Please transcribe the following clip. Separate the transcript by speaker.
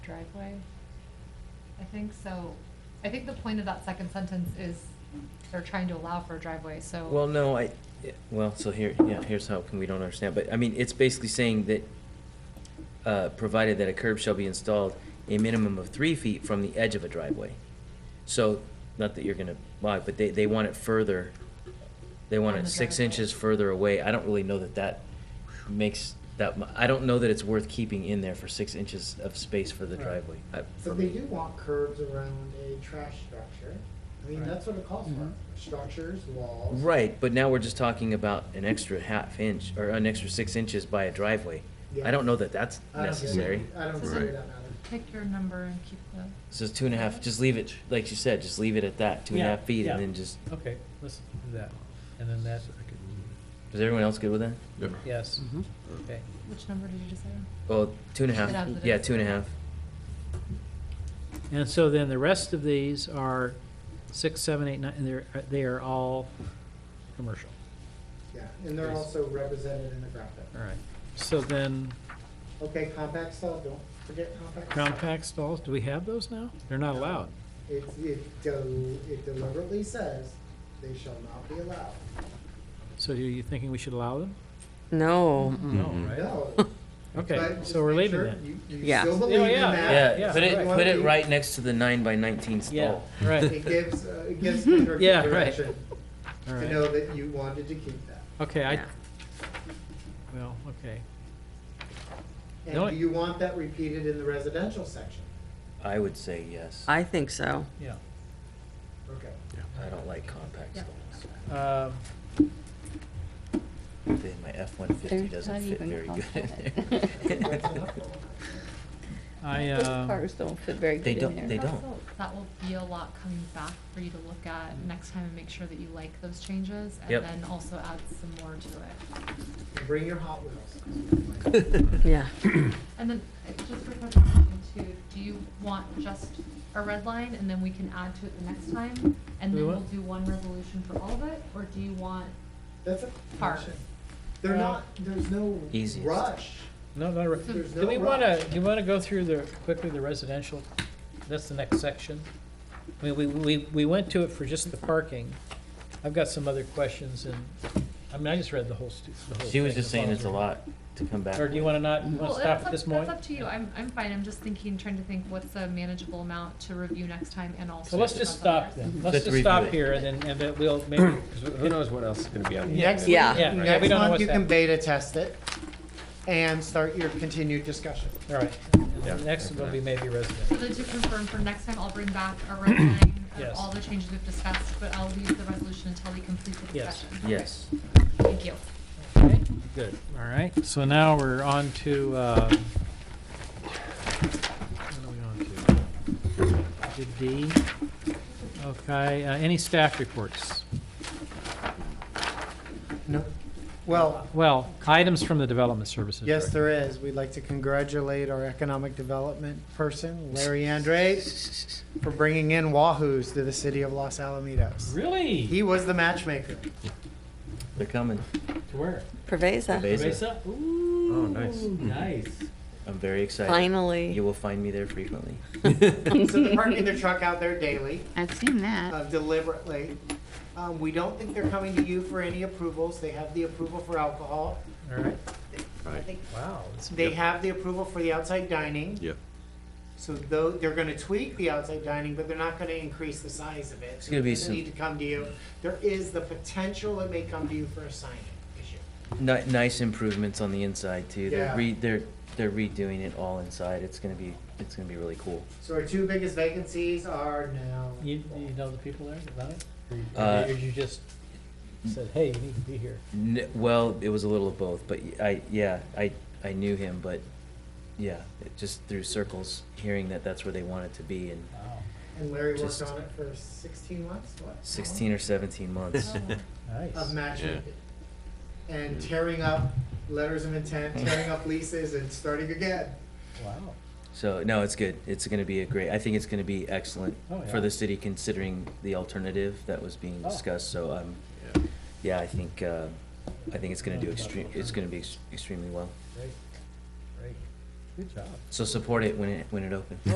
Speaker 1: driveway. I think so. I think the point of that second sentence is they're trying to allow for a driveway, so.
Speaker 2: Well, no, I, yeah, well, so here, yeah, here's how come we don't understand, but, I mean, it's basically saying that, uh, provided that a curb shall be installed a minimum of three feet from the edge of a driveway. So, not that you're gonna lie, but they, they want it further, they want
Speaker 1: On
Speaker 2: it
Speaker 1: the
Speaker 2: six
Speaker 1: driveway.
Speaker 2: inches further away, I don't really know that that makes that, mu- I don't know that it's worth keeping in there for six inches of space for the
Speaker 3: Right.
Speaker 2: driveway, I, for
Speaker 3: But they
Speaker 2: me.
Speaker 3: do want curbs around a trash structure. I mean,
Speaker 4: Right. Mm-hmm.
Speaker 3: that's what it calls for, structures, walls.
Speaker 2: Right, but now we're just talking about an extra half inch, or an extra six inches by a driveway. I
Speaker 3: Yeah.
Speaker 2: don't know that that's
Speaker 3: I don't get it.
Speaker 2: necessary.
Speaker 3: I don't see
Speaker 1: Right.
Speaker 3: that matters.
Speaker 1: Pick your number and keep the.
Speaker 2: So it's two and a half, just leave it, like you said, just leave it at that, two and a
Speaker 4: Yeah,
Speaker 2: half feet, and
Speaker 4: yeah.
Speaker 2: then just,
Speaker 4: Okay, let's do that. And then that,
Speaker 2: is everyone else good with that?
Speaker 4: yes, okay.
Speaker 1: Which number did you decide?
Speaker 2: Well, two and a half,
Speaker 1: Get out of the
Speaker 2: yeah, two and a half.
Speaker 4: And so then the rest of these are six, seven, eight, nine, and they're, uh, they are all commercial.
Speaker 3: Yeah, and they're also represented in the graphic.
Speaker 4: All right. So then
Speaker 3: Okay, compact cell, don't forget compact. cell.
Speaker 4: compact stalls, do we have those now? They're not allowed.
Speaker 3: It, it del- it deliberately says they shall not be allowed.
Speaker 4: So are you thinking we should allow them?
Speaker 5: No.
Speaker 4: No,
Speaker 3: Mm-hmm.
Speaker 4: right?
Speaker 3: No.
Speaker 4: Okay,
Speaker 3: but just
Speaker 4: so we're leaving
Speaker 3: make sure
Speaker 4: that.
Speaker 3: You, you
Speaker 5: Yeah.
Speaker 3: still
Speaker 5: Oh,
Speaker 3: believe in
Speaker 4: yeah,
Speaker 3: that.
Speaker 2: Yeah, put it, put it right next to the nine by nineteen
Speaker 4: Yeah,
Speaker 2: stall.
Speaker 4: right,
Speaker 3: It gives, uh, it gives Kendrick
Speaker 4: Yeah,
Speaker 3: the
Speaker 4: right.
Speaker 3: direction
Speaker 4: all
Speaker 3: to
Speaker 4: right.
Speaker 3: know that you wanted to keep that.
Speaker 4: Okay, I,
Speaker 5: Yeah.
Speaker 4: well, okay. No,
Speaker 3: And do
Speaker 4: I-
Speaker 3: you want that repeated in the residential section?
Speaker 2: I would say yes. I
Speaker 5: I think so.
Speaker 4: Yeah.
Speaker 3: Okay.
Speaker 2: don't like compact
Speaker 1: Yeah.
Speaker 2: stalls.
Speaker 4: Um,
Speaker 2: Then My F one fifty
Speaker 6: They're
Speaker 2: doesn't
Speaker 6: not
Speaker 2: fit
Speaker 6: even
Speaker 2: very good in
Speaker 6: compact.
Speaker 2: there.
Speaker 4: I,
Speaker 6: Those
Speaker 4: um,
Speaker 6: cars don't fit very
Speaker 2: They
Speaker 6: good in
Speaker 2: don't-
Speaker 6: there.
Speaker 2: they don't.
Speaker 1: Also, That will be a lot coming back for you to look at next time and make sure that you like those changes.
Speaker 2: Yep.
Speaker 1: And then also add some more to it.
Speaker 3: Bring your Hot Wheels.
Speaker 5: Yeah.
Speaker 1: And then, uh, just for clarification too, do you want just a red line and then we can add to it the next time? And
Speaker 4: Do
Speaker 1: then
Speaker 4: what?
Speaker 1: we'll do one resolution for all of it, or do you want,
Speaker 3: That's a
Speaker 1: Park.
Speaker 3: question. They're
Speaker 4: Well-
Speaker 3: not, there's no
Speaker 2: Easiest.
Speaker 3: rush.
Speaker 4: no, not right.
Speaker 3: There's
Speaker 4: Do we
Speaker 3: no
Speaker 4: want to,
Speaker 3: rush.
Speaker 4: do you want to go through the, quickly the residential? That's the next section. I mean, we, we, we went to it for just the parking. I've got some other questions and, I mean, I just read the whole stu, the whole
Speaker 2: She was
Speaker 4: thing,
Speaker 2: just
Speaker 4: as
Speaker 2: saying
Speaker 4: long
Speaker 2: it's
Speaker 4: as
Speaker 2: a
Speaker 4: we're-
Speaker 2: lot to come back.
Speaker 4: Or do you
Speaker 2: with.
Speaker 4: want to not, you want
Speaker 1: well,
Speaker 4: to stop
Speaker 1: that's
Speaker 4: at
Speaker 1: up,
Speaker 4: this
Speaker 1: that's
Speaker 4: point?
Speaker 1: up to you, I'm, I'm fine, I'm just thinking, trying to think what's a manageable amount to review next time and also.
Speaker 4: So let's just stop
Speaker 1: then.
Speaker 4: then. Let's
Speaker 2: Let's
Speaker 4: just
Speaker 2: review
Speaker 4: stop
Speaker 2: it.
Speaker 4: here and then, and then we'll maybe,
Speaker 7: Because who knows what else is gonna be on the.
Speaker 3: Next
Speaker 7: agenda.
Speaker 3: week,
Speaker 5: Yeah.
Speaker 4: Yeah, yeah, we
Speaker 3: next
Speaker 4: don't know
Speaker 3: month
Speaker 4: what's
Speaker 3: you can
Speaker 4: happening.
Speaker 3: beta test it and start your continued discussion.
Speaker 4: all right.
Speaker 7: Yeah.
Speaker 4: Next will be maybe
Speaker 1: So
Speaker 4: residential.
Speaker 1: then to confirm for next time, I'll bring back a red line
Speaker 4: Yes.
Speaker 1: of all the changes we've discussed, but I'll leave the resolution until we complete the
Speaker 4: Yes.
Speaker 1: discussion.
Speaker 2: Yes.
Speaker 1: Thank you.
Speaker 4: Okay, Good, all right. So now we're on to, um, what are we on to? Did D. Okay, uh, any staff reports?
Speaker 3: No, well,
Speaker 4: Well, items from the Development Services
Speaker 3: yes,
Speaker 4: Director.
Speaker 3: there is. We'd like to congratulate our economic development person, Larry Andres, for bringing in Wahoos to the city of Los Alamitos.
Speaker 4: Really?
Speaker 3: He was the matchmaker.
Speaker 2: They're coming.
Speaker 4: To where?
Speaker 5: Preveza.
Speaker 2: Beza.
Speaker 7: Oh, nice.
Speaker 4: Nice.
Speaker 2: I'm very excited. You
Speaker 5: Finally.
Speaker 2: will find me there frequently.
Speaker 3: So they're parking their truck out there daily.
Speaker 6: I've seen that.
Speaker 3: uh, deliberately. Um, We don't think they're coming to you for any approvals. They have the approval for alcohol.
Speaker 4: All right.
Speaker 3: I think
Speaker 4: Wow. that's-
Speaker 3: They have the approval for the outside dining.
Speaker 8: Yep.
Speaker 3: So though, they're gonna tweak the outside dining, but they're not gonna increase the size of it. It's
Speaker 2: gonna be some-
Speaker 3: Need to come to you. There is the potential it may come to you for a sign issue.
Speaker 2: Ni- nice improvements on the inside too. They're
Speaker 3: Yeah.
Speaker 2: re- they're they're redoing it all inside. It's gonna be it's gonna be really cool.
Speaker 3: So our two biggest vacancies are now.
Speaker 4: You, you know the people there about it? Or you-
Speaker 2: Uh,
Speaker 4: Or you just said, hey, you need to be here?
Speaker 2: N- well, it was a little of both, but y- I yeah I I knew him, but yeah, it just through circles, hearing that that's where they wanted to be in
Speaker 4: Wow,
Speaker 3: And Larry worked
Speaker 2: Just-
Speaker 3: on it for sixteen months, what?
Speaker 2: 16 or 17 months.
Speaker 3: of
Speaker 4: nice.
Speaker 3: matchmaking. And tearing up letters of intent, tearing up leases and starting again.
Speaker 4: Wow.
Speaker 2: So no, it's good. It's gonna be a great. I think it's gonna be excellent
Speaker 4: Oh, yeah.
Speaker 2: for the city considering the alternative that was being
Speaker 4: Oh.
Speaker 2: discussed. So um,
Speaker 8: Yeah.
Speaker 2: yeah, I think uh, I think it's gonna do extreme. It's gonna be ex- extremely well.
Speaker 4: Great, great.
Speaker 7: Good job.
Speaker 2: So support it when it, when it opens.